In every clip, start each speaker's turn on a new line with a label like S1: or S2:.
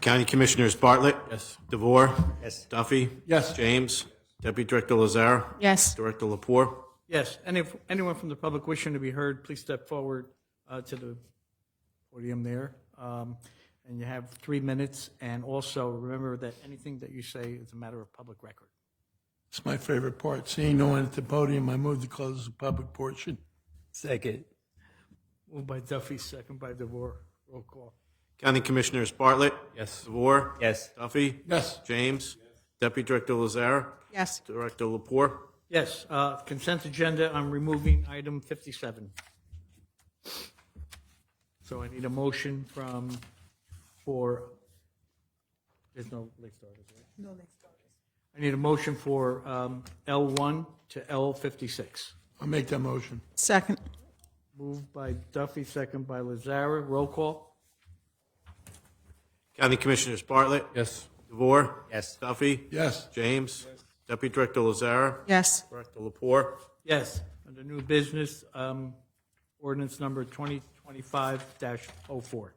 S1: County Commissioners Bartlett.
S2: Yes.
S1: DeVore. Yes. Duffy.
S2: Yes.
S1: James. Deputy Director Lazar.
S3: Yes.
S1: Director Lapore.
S4: Yes, and if anyone from the public wishing to be heard, please step forward uh, to the podium there. Um, And you have three minutes, and also remember that anything that you say is a matter of public record.
S2: It's my favorite part, seeing no one at the podium. I move to close the public portion.
S5: Second.
S4: Moved by Duffy, second by DeVore. Roll call.
S1: County Commissioners Bartlett. Yes. DeVore.
S5: Yes.
S1: Duffy.
S2: Yes.
S1: James. Deputy Director Lazar.
S3: Yes.
S1: Director Lapore.
S4: Yes, uh, consent agenda, I'm removing item 57. So I need a motion from, for, there's no late starters, right? No late starters. I need a motion for um, L1 to L56.
S2: I'll make that motion.
S3: Second.
S4: Moved by Duffy, second by Lazara. Roll call?
S1: County Commissioners Bartlett.
S2: Yes.
S1: DeVore.
S5: Yes.
S1: Duffy.
S2: Yes.
S1: James. Deputy Director Lazar.
S3: Yes.
S1: Director Lapore.
S4: Yes. Under new business, um, ordinance number 2025-04.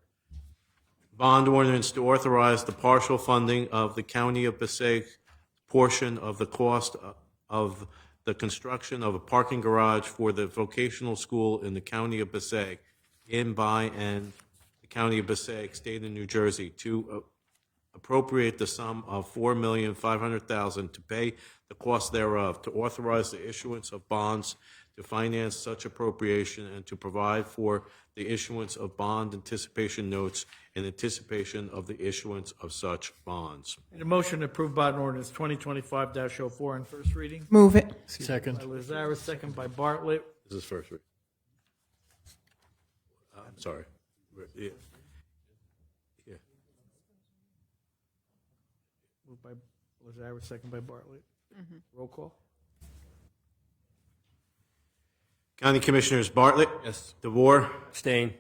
S1: Bond ordinance to authorize the partial funding of the County of Passaic portion of the cost of the construction of a parking garage for the vocational school in the County of Passaic, in, by, and the County of Passaic, State of New Jersey, to uh, appropriate the sum of four million five hundred thousand to pay the cost thereof, to authorize the issuance of bonds to finance such appropriation, and to provide for the issuance of bond anticipation notes in anticipation of the issuance of such bonds.
S4: Need a motion to approve bond ordinance 2025-04 on first reading?
S3: Move it.
S2: Second.
S4: By Lazara, second by Bartlett.
S1: This is first read. I'm sorry. Yeah. Yeah.
S4: Moved by Lazara, second by Bartlett. Roll call?
S1: County Commissioners Bartlett.
S2: Yes.
S1: DeVore.
S5: Abstain.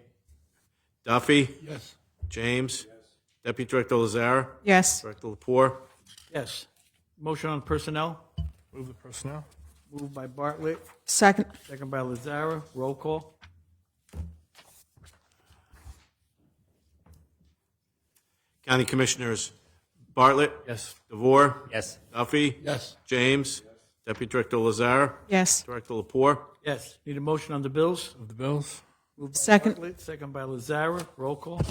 S1: Duffy.
S2: Yes.
S1: James. Deputy Director Lazar.
S3: Yes.
S1: Director Lapore.
S4: Yes. Motion on personnel?
S2: Move the personnel.
S4: Moved by Bartlett,
S3: Second.
S4: second by Lazara. Roll call?
S1: County Commissioners Bartlett.
S2: Yes.
S1: DeVore.
S5: Yes.
S1: Duffy.
S2: Yes.
S1: James. Deputy Director Lazar.
S3: Yes.
S1: Director Lapore.
S4: Yes. Need a motion on the bills?
S2: Move the bills.
S4: Moved by
S3: Second.
S4: Bartlett, Second by Lazara. Roll call?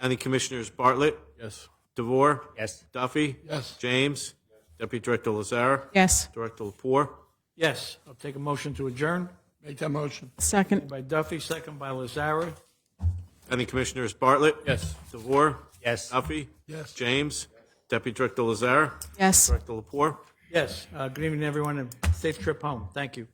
S1: County Commissioners Bartlett.
S2: Yes.
S1: DeVore.
S5: Yes.
S1: Duffy.
S2: Yes.
S1: James. Deputy Director Lazar.
S3: Yes.
S1: Director Lapore.
S4: Yes. I'll take a motion to adjourn.
S2: Make that motion.
S3: Second.
S4: By Duffy, second by Lazara.
S1: County Commissioners Bartlett.
S2: Yes.
S1: DeVore.
S5: Yes.
S1: Duffy.
S2: Yes.
S1: James. Deputy Director Lazar.
S3: Yes.
S1: Director Lapore.
S4: Yes. Uh, Good evening, everyone, and safe trip home. Thank you.